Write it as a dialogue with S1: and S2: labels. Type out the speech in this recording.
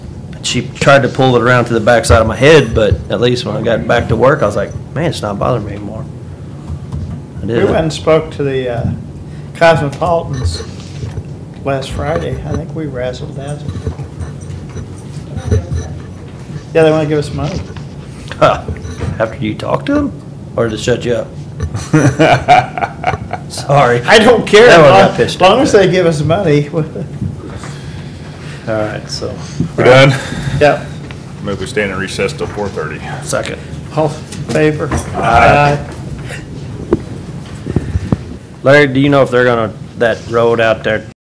S1: she tried to pull it around to the backside of my head, but at least when I got back to work, I was like, man, it's not bothering me anymore. I
S2: We went
S1: did.
S2: and spoke to the uh, Cosmopolitans last Friday. I think we razzled dazzled. Yeah, they want to give us money.
S1: After you talked to him, or to shut you up? Sorry.
S2: I don't care.
S1: That one got
S2: Long-
S1: pissed
S2: Long
S1: off.
S2: as they give us money.
S1: All right, so,
S3: We're done?
S2: Yep.
S3: Move we stand in recess till four thirty.
S1: second.
S2: All in favor?
S3: Aye.
S1: Larry, do you know if they're gonna, that road out there